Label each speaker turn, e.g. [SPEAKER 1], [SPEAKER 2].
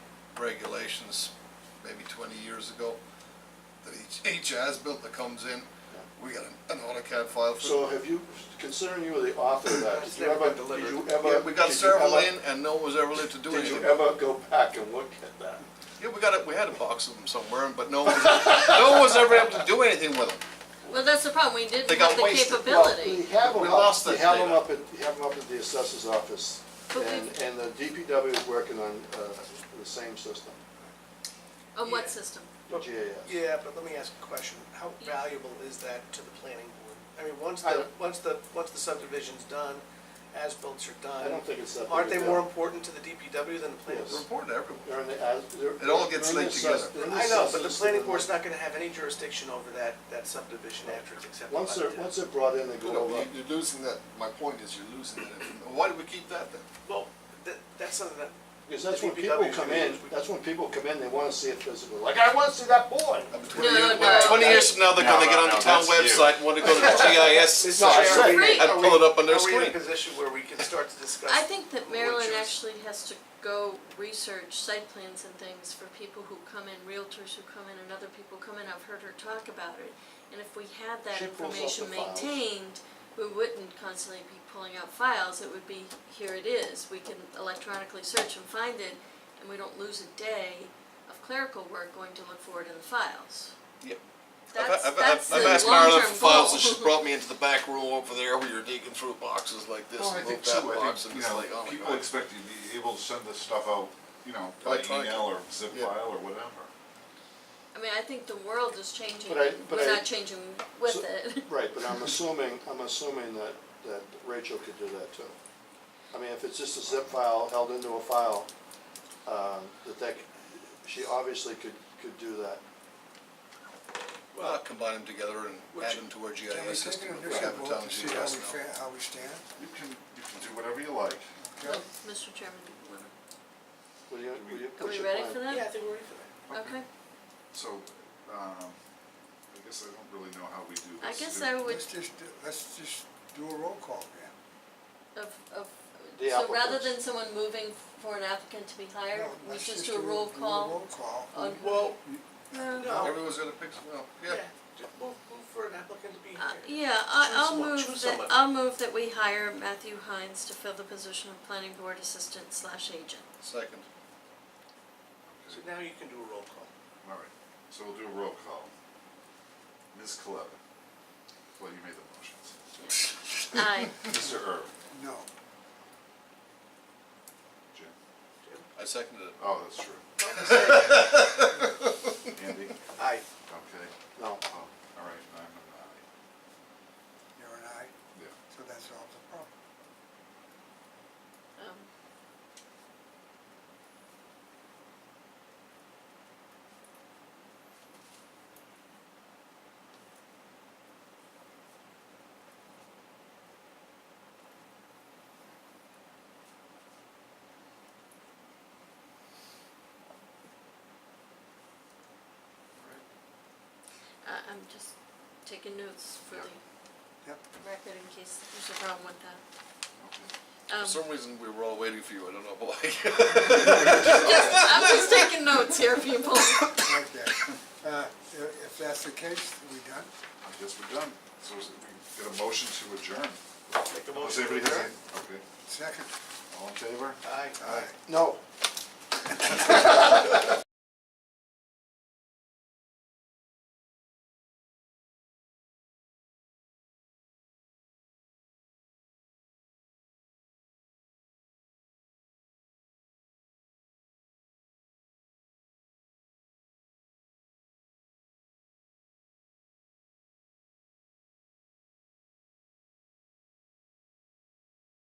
[SPEAKER 1] regulations maybe twenty years ago. That each, each as-built that comes in, we got an AutoCAD file for.
[SPEAKER 2] So have you, considering you were the author of that, did
[SPEAKER 3] It's
[SPEAKER 2] you
[SPEAKER 3] never
[SPEAKER 2] ever,
[SPEAKER 3] been
[SPEAKER 2] did
[SPEAKER 3] delivered.
[SPEAKER 2] you ever?
[SPEAKER 1] Yeah, we got
[SPEAKER 2] did you
[SPEAKER 1] several
[SPEAKER 2] ever-
[SPEAKER 1] in and no one was ever lived to do
[SPEAKER 2] Did you
[SPEAKER 1] anything.
[SPEAKER 2] ever go back and look at that?
[SPEAKER 1] Yeah, we got, a- we had a box of them somewhere, but no one, no one was ever able to do anything with them.
[SPEAKER 4] Well, that's the problem, we
[SPEAKER 1] They
[SPEAKER 4] didn't
[SPEAKER 1] got
[SPEAKER 4] have the
[SPEAKER 1] wasted.
[SPEAKER 2] Well,
[SPEAKER 4] capability.
[SPEAKER 2] We have
[SPEAKER 1] We
[SPEAKER 2] them
[SPEAKER 1] lost
[SPEAKER 2] up, we
[SPEAKER 1] that
[SPEAKER 2] have them
[SPEAKER 1] data.
[SPEAKER 2] up at, we have them up at the assessor's office,
[SPEAKER 4] But
[SPEAKER 2] and,
[SPEAKER 4] we've-
[SPEAKER 2] and the DPW is working on, uh, the same system,
[SPEAKER 4] On
[SPEAKER 3] Yeah.
[SPEAKER 4] what system?
[SPEAKER 2] the GIS.
[SPEAKER 3] Yeah, but let me ask a question. How valuable is that to the planning board? I mean, once
[SPEAKER 2] I
[SPEAKER 3] the,
[SPEAKER 2] don't-
[SPEAKER 3] once the, once the subdivision's done, as builts are done.
[SPEAKER 2] I don't think it's that big
[SPEAKER 3] Aren't
[SPEAKER 2] a
[SPEAKER 3] they
[SPEAKER 2] deal.
[SPEAKER 3] more important to the DPW than the planning
[SPEAKER 2] Yes.
[SPEAKER 1] Report
[SPEAKER 3] board?
[SPEAKER 1] to everyone.
[SPEAKER 2] They're in the, as- they're-
[SPEAKER 1] It all gets
[SPEAKER 2] they're in
[SPEAKER 1] linked
[SPEAKER 2] the assess-
[SPEAKER 1] together.
[SPEAKER 2] they're in the
[SPEAKER 3] I know, but the
[SPEAKER 2] assessor's
[SPEAKER 3] planning
[SPEAKER 2] system.
[SPEAKER 3] board's not gonna have any jurisdiction over that, that subdivision after it's accepted by
[SPEAKER 2] Once they're,
[SPEAKER 3] the town.
[SPEAKER 2] once they're brought in, they
[SPEAKER 1] You
[SPEAKER 2] go
[SPEAKER 1] know,
[SPEAKER 2] over.
[SPEAKER 1] you- You're losing that, my point is you're losing that. information. Why do we keep that then?
[SPEAKER 3] Well, that, that's something that.
[SPEAKER 2] Because that's
[SPEAKER 3] the
[SPEAKER 2] when people
[SPEAKER 3] DPW is
[SPEAKER 2] come
[SPEAKER 3] gonna
[SPEAKER 2] in,
[SPEAKER 3] use. We-
[SPEAKER 2] that's when people come in, they wanna see it physically, like, I wanna see that board.
[SPEAKER 1] Uh, but 20
[SPEAKER 4] No,
[SPEAKER 1] years-
[SPEAKER 4] no.
[SPEAKER 1] Twenty years from now, they're
[SPEAKER 5] No,
[SPEAKER 1] gonna get
[SPEAKER 5] no,
[SPEAKER 1] on the
[SPEAKER 5] no,
[SPEAKER 1] town
[SPEAKER 5] that's you.
[SPEAKER 1] website, and want to go to the GIS.
[SPEAKER 2] not-
[SPEAKER 4] it's
[SPEAKER 1] section.
[SPEAKER 4] not- free.
[SPEAKER 1] I'd pull it up on their
[SPEAKER 3] Are we
[SPEAKER 1] screen.
[SPEAKER 3] in a position where we can start to discuss?
[SPEAKER 4] I think that
[SPEAKER 3] what
[SPEAKER 4] Maryland
[SPEAKER 3] choice-
[SPEAKER 4] actually has to go research site plans and things for people who come in, realtors who come in, and other people come in, I've heard her talk about it. And if we had that
[SPEAKER 2] She pulls up
[SPEAKER 4] information
[SPEAKER 2] the files.
[SPEAKER 4] maintained, we wouldn't constantly be pulling out files, it would be, here it is, we can electronically search and find it, and we don't lose a day of clerical work going to look for it in the files.
[SPEAKER 1] Yep. I've-
[SPEAKER 4] That's,
[SPEAKER 1] I've-
[SPEAKER 4] that's the
[SPEAKER 1] I've
[SPEAKER 4] long-term goal.
[SPEAKER 1] asked Marilyn for files, and she's brought me into the back room over there where you're digging through boxes like this
[SPEAKER 5] Well, Oh, I
[SPEAKER 1] and
[SPEAKER 5] think
[SPEAKER 1] move
[SPEAKER 5] too,
[SPEAKER 1] that
[SPEAKER 5] I
[SPEAKER 1] box, and
[SPEAKER 5] think, you
[SPEAKER 1] it's
[SPEAKER 5] know,
[SPEAKER 1] like, oh my
[SPEAKER 5] people
[SPEAKER 1] god.
[SPEAKER 5] expect you to be able to send this stuff out, you know, by
[SPEAKER 1] Electronic.
[SPEAKER 5] email or zip
[SPEAKER 1] Yeah.
[SPEAKER 5] file or whatever.
[SPEAKER 4] I mean, I think the world is changing,
[SPEAKER 2] But I- but
[SPEAKER 4] we're
[SPEAKER 2] I-
[SPEAKER 4] not changing with
[SPEAKER 2] So-
[SPEAKER 4] it.
[SPEAKER 2] Right, but I'm assuming, I'm assuming that, that Rachel could do that too. I mean, if it's just a zip file held into a file, um, that that, c- she obviously could, could do that.
[SPEAKER 1] Well, combine them together and
[SPEAKER 3] Would
[SPEAKER 1] add
[SPEAKER 3] you-
[SPEAKER 1] them to our
[SPEAKER 6] Can we
[SPEAKER 1] GIS
[SPEAKER 6] take
[SPEAKER 1] system.
[SPEAKER 6] an
[SPEAKER 1] if we have a
[SPEAKER 6] initial vote
[SPEAKER 1] town
[SPEAKER 6] to see how we
[SPEAKER 1] GIS now.
[SPEAKER 6] fa- how we stand?
[SPEAKER 5] You can, you can do whatever you like.
[SPEAKER 4] Well,
[SPEAKER 6] Okay.
[SPEAKER 4] Mr. Chairman, wanna-
[SPEAKER 2] Will you, will you,
[SPEAKER 4] are
[SPEAKER 2] what's
[SPEAKER 4] we
[SPEAKER 2] your
[SPEAKER 4] ready
[SPEAKER 2] plan?
[SPEAKER 4] for
[SPEAKER 3] Yeah, I
[SPEAKER 4] that?
[SPEAKER 3] think we're ready for that.
[SPEAKER 4] Okay,
[SPEAKER 5] So, um, I guess I don't really know how we do
[SPEAKER 4] I
[SPEAKER 5] this.
[SPEAKER 4] guess
[SPEAKER 5] Do-
[SPEAKER 4] I would,
[SPEAKER 6] Let's just, do- let's just do a roll call again.
[SPEAKER 4] of, of,
[SPEAKER 2] The
[SPEAKER 4] so rather
[SPEAKER 2] applicants.
[SPEAKER 4] than someone moving for an applicant to be hired,
[SPEAKER 6] No,
[SPEAKER 4] we
[SPEAKER 6] let's
[SPEAKER 4] just do a roll
[SPEAKER 6] do a
[SPEAKER 4] call
[SPEAKER 6] roll call.
[SPEAKER 4] on.
[SPEAKER 3] Well,
[SPEAKER 4] Uh,
[SPEAKER 3] No.
[SPEAKER 1] Everyone's got a picture, well,
[SPEAKER 3] yeah,
[SPEAKER 1] yeah.
[SPEAKER 3] just move, move for an applicant to be
[SPEAKER 4] Uh,
[SPEAKER 3] here.
[SPEAKER 4] Yeah,
[SPEAKER 3] Choose
[SPEAKER 4] I, I'll
[SPEAKER 3] someone-
[SPEAKER 4] move
[SPEAKER 3] choose
[SPEAKER 4] that,
[SPEAKER 3] somebody.
[SPEAKER 4] I'll move that we hire Matthew Hines to fill the position of planning board assistant slash agent.
[SPEAKER 1] Second.
[SPEAKER 3] So now you can do a roll call.
[SPEAKER 5] All right, so we'll do a roll call. Ms. Coletta, well, you made the motions.
[SPEAKER 4] Aye,
[SPEAKER 5] Mr. Erb,
[SPEAKER 6] No,
[SPEAKER 5] Jim,
[SPEAKER 1] I seconded it.
[SPEAKER 5] oh, that's true. Andy,
[SPEAKER 3] Aye.
[SPEAKER 5] okay,
[SPEAKER 2] No,
[SPEAKER 5] oh, all right, I'm an aye,
[SPEAKER 6] you're an aye,
[SPEAKER 5] yeah.
[SPEAKER 6] so that solves the problem.
[SPEAKER 4] um, I, uh, I'm just taking notes for
[SPEAKER 5] Yeah.
[SPEAKER 4] the
[SPEAKER 6] Yep.
[SPEAKER 4] record in case there's a problem with that.
[SPEAKER 1] For
[SPEAKER 4] Um,
[SPEAKER 1] some reason, we were all waiting for you, I don't know why.
[SPEAKER 4] I'm just taking notes here, people.
[SPEAKER 6] Okay. Uh, i- If that's the case, we done?
[SPEAKER 5] I guess we're done. So is it- we get a motion to adjourn.
[SPEAKER 3] Make the
[SPEAKER 5] Unless
[SPEAKER 3] motion.
[SPEAKER 5] anybody has any- okay,
[SPEAKER 6] Second?
[SPEAKER 5] all in favor?
[SPEAKER 3] Aye.
[SPEAKER 6] Aye.
[SPEAKER 2] no.